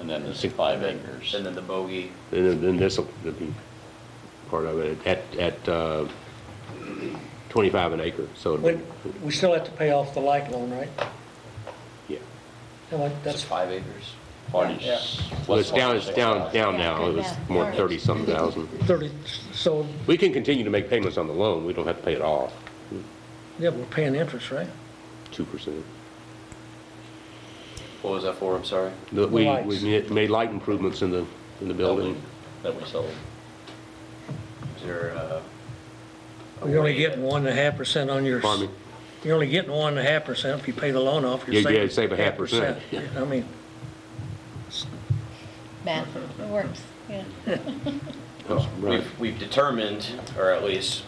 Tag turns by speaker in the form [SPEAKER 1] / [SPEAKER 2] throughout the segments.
[SPEAKER 1] and then it's five acres.
[SPEAKER 2] And then the bogey,
[SPEAKER 3] And then- then this'll that'd be part of it, at, at uh, 25 an acre, so it'd
[SPEAKER 4] But
[SPEAKER 3] be,
[SPEAKER 4] we still have to pay off the light loan, right?
[SPEAKER 3] yeah.
[SPEAKER 4] No, like,
[SPEAKER 2] that's
[SPEAKER 4] that's,
[SPEAKER 2] five acres.
[SPEAKER 1] Parties.
[SPEAKER 4] Yeah.
[SPEAKER 3] Well, it's down, it's down, down now, it was more
[SPEAKER 5] Yeah.
[SPEAKER 3] 30-something thousand.
[SPEAKER 4] 30, so,
[SPEAKER 3] We can continue to make payments on the loan, we don't have to pay it off,
[SPEAKER 4] yeah, we're paying interest, right?
[SPEAKER 3] 2%.
[SPEAKER 2] What was that for, I'm sorry?
[SPEAKER 3] The- We,
[SPEAKER 4] lights.
[SPEAKER 3] we made light improvements in the, in the building.
[SPEAKER 1] That we sold.
[SPEAKER 2] Is there, uh? a
[SPEAKER 4] You're only
[SPEAKER 2] way-
[SPEAKER 4] getting one and a half percent on your,
[SPEAKER 3] Pardon me?
[SPEAKER 4] you're only getting one and a half percent if you pay the loan off. you're
[SPEAKER 3] Yeah, yeah,
[SPEAKER 4] saving
[SPEAKER 3] save a half percent.
[SPEAKER 4] I mean,
[SPEAKER 5] Math, it works, yeah.
[SPEAKER 3] Oh, right.
[SPEAKER 2] We've, we've determined, or at least,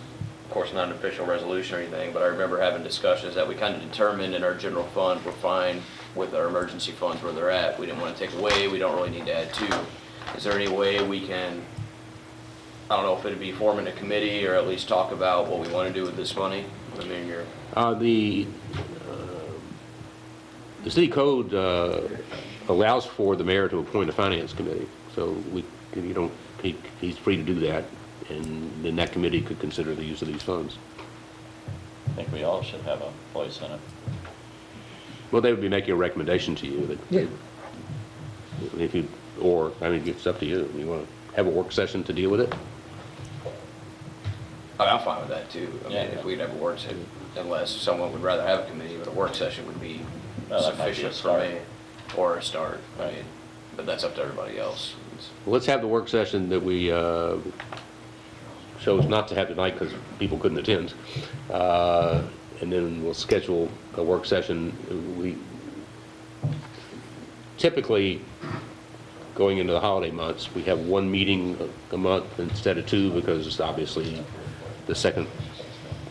[SPEAKER 2] of course, not an official resolution or anything, but I remember having discussions that we kind of determined in our general fund, we're fine with our emergency funds where they're at. We didn't want to take away, we don't really need to add to. Is there any way we can, I don't know if it'd be forming a committee or at least talk about what we want to do with this money? I mean, you're,
[SPEAKER 3] Uh, The, uh, the city code uh, allows for the mayor to appoint a finance committee, so we, you don't, he, he's free to do that, and then that committee could consider the use of these funds.
[SPEAKER 1] I think we all should have a voice in it.
[SPEAKER 3] Well, they would be making a recommendation to you,
[SPEAKER 4] Yeah.
[SPEAKER 3] that, if you, or, I mean, it's up to you, you want to have a work session to deal with it?
[SPEAKER 2] I mean, Oh, I'm fine with that too. I mean,
[SPEAKER 1] Yeah.
[SPEAKER 2] if we'd have a work session, unless someone would rather have a committee, but a work session would be
[SPEAKER 1] Well, that might be a
[SPEAKER 2] sufficient for
[SPEAKER 1] start.
[SPEAKER 2] me. Or a start, I
[SPEAKER 1] Right.
[SPEAKER 2] mean, but that's up to everybody else.
[SPEAKER 3] Well, Let's have the work session that we uh, chose not to have tonight because people couldn't attend. Uh, And then we'll schedule a work session. We typically, going into the holiday months, we have one meeting a month instead of two because obviously the second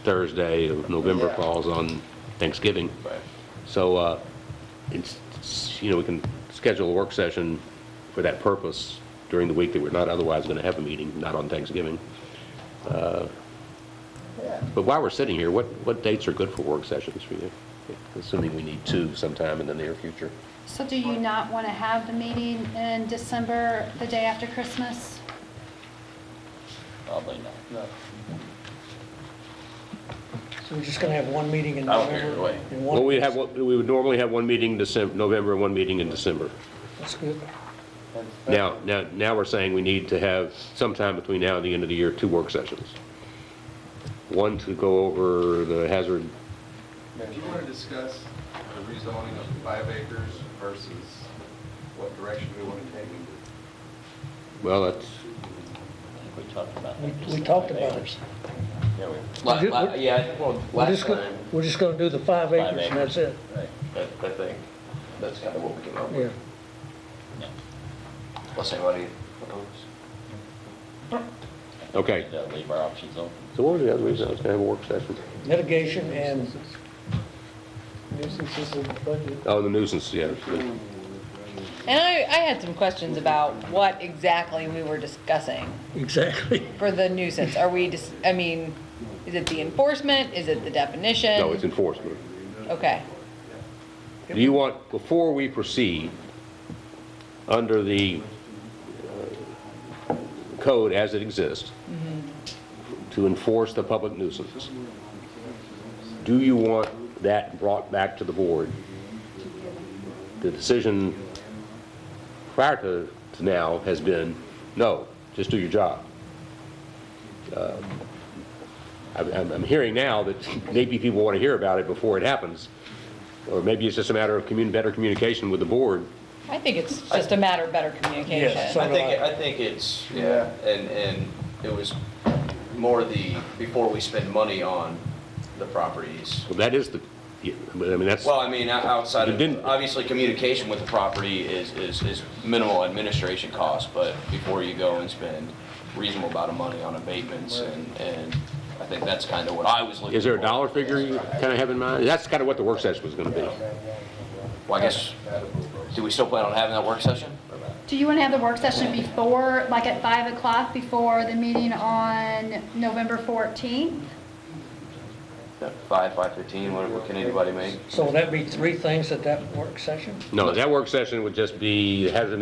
[SPEAKER 3] Thursday of November
[SPEAKER 2] Yeah.
[SPEAKER 3] falls on Thanksgiving.
[SPEAKER 2] Right.
[SPEAKER 3] So, uh, it's, it's, you know, we can schedule a work session for that purpose during the week that we're not otherwise going to have a meeting, not on Thanksgiving. Uh, But while we're sitting here, what, what dates are good for work sessions for you? Assuming we need two sometime in the near future.
[SPEAKER 6] So do you not want to have the meeting in December, the day after Christmas?
[SPEAKER 1] Probably not.
[SPEAKER 4] so we're just gonna have one meeting in
[SPEAKER 2] I don't care
[SPEAKER 4] November.
[SPEAKER 2] either way.
[SPEAKER 4] and one-
[SPEAKER 3] Well, we have, one- we would normally have one meeting in December, November, and one meeting in December.
[SPEAKER 4] That's good.
[SPEAKER 3] Now, now, now we're saying we need to have sometime between now and the end of the year, two work sessions. One to go over the hazard
[SPEAKER 7] If you want to discuss the rezoning of five acres versus what direction we want to take,
[SPEAKER 3] Well, that's,
[SPEAKER 1] I think we talked about
[SPEAKER 4] We-
[SPEAKER 1] that.
[SPEAKER 4] we talked about it.
[SPEAKER 1] Yeah, we,
[SPEAKER 2] La-
[SPEAKER 4] Did-
[SPEAKER 2] la-
[SPEAKER 4] what-
[SPEAKER 2] Yeah, well,
[SPEAKER 4] We're
[SPEAKER 2] last
[SPEAKER 4] just go-
[SPEAKER 2] time,
[SPEAKER 4] We're just gonna do the five
[SPEAKER 1] Five
[SPEAKER 4] acres and
[SPEAKER 1] acres.
[SPEAKER 4] that's it,
[SPEAKER 2] I I think, that's kind of what we came up
[SPEAKER 4] yeah.
[SPEAKER 2] with. Unless anybody opposes.
[SPEAKER 3] okay.
[SPEAKER 1] yeah, leave our options open.
[SPEAKER 3] So what was the other reason I was gonna have a work session?
[SPEAKER 4] Mitigation and,
[SPEAKER 3] Oh, the nuisance, yeah.
[SPEAKER 5] And I, I had some questions about what exactly we were discussing
[SPEAKER 4] exactly.
[SPEAKER 5] for the nuisance. Are we, dis- I mean, is it the enforcement? Is it the definition?
[SPEAKER 3] No, it's enforcement.
[SPEAKER 5] Okay.
[SPEAKER 3] Do you want, before we proceed, under the uh, code as it exists, to enforce the public nuisance, do you want that brought back to the board? The decision prior to to now has been, no, just do your job. Uh, I'm- I'm, I'm hearing now that maybe people want to hear about it before it happens, or maybe it's just a matter of commun, better communication with the board.
[SPEAKER 5] I think it's just a matter of better
[SPEAKER 4] Yes.
[SPEAKER 5] communication.
[SPEAKER 4] So
[SPEAKER 2] I
[SPEAKER 4] do
[SPEAKER 2] think,
[SPEAKER 4] I.
[SPEAKER 2] I think it's, yeah, and, and it was more the, before we spend money on the properties.
[SPEAKER 3] Well, that is the, yeah, I mean, that's,
[SPEAKER 2] Well, I mean, o- outside
[SPEAKER 3] You didn't-
[SPEAKER 2] of, obviously, communication with the property is, is, is minimal administration cost, but before you go and spend reasonable amount of money on abatements, and, and I think that's kind of what I was looking for.
[SPEAKER 3] is there a dollar figure you kind of have in mind? That's kind of what the work session was going to be.
[SPEAKER 2] Well, I guess, do we still plan on having that work session?
[SPEAKER 6] Do you want to have the work session before, like at 5 o'clock, before the meeting on November 14th?
[SPEAKER 2] Five, five fifteen, what, what can anybody make?
[SPEAKER 4] So would that be three things at that work session?
[SPEAKER 3] No, that work session would just be hazard